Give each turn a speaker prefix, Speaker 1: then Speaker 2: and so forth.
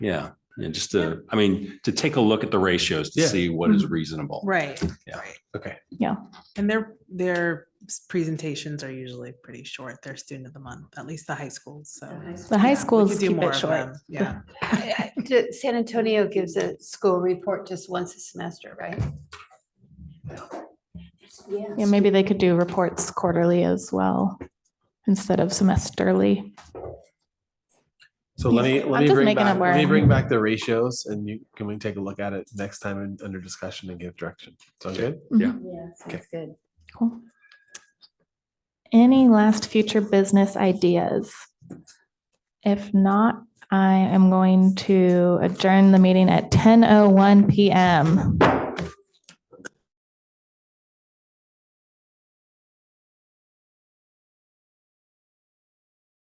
Speaker 1: Yeah, and just to, I mean, to take a look at the ratios to
Speaker 2: Yeah.
Speaker 1: see what is reasonable.
Speaker 3: Right.
Speaker 1: Yeah.
Speaker 3: right.
Speaker 2: Okay.
Speaker 3: And their, their s- presentations are usually pretty short. They're student of the month, at least the high schools, so.
Speaker 4: The high
Speaker 3: yeah, we
Speaker 4: schools
Speaker 3: could do
Speaker 4: keep
Speaker 3: more
Speaker 4: it
Speaker 3: of
Speaker 4: short.
Speaker 3: them, Yeah.
Speaker 5: I- I- d- San Antonio gives a school report just once a semester, right?
Speaker 4: Yeah, maybe they could do reports quarterly as well instead of semesterly.
Speaker 2: So let me,
Speaker 4: I'm
Speaker 2: let me
Speaker 4: just
Speaker 2: bring
Speaker 4: making
Speaker 2: back,
Speaker 4: up
Speaker 2: let me
Speaker 4: where-
Speaker 2: bring back the ratios and you, can we take a look at it next time and under discussion and give direction? Sound good?
Speaker 6: Yeah,
Speaker 2: Okay.
Speaker 6: sounds good.
Speaker 4: Cool. Any last future business ideas? If not, oh I am going to adjourn the meeting at 10:01 PM.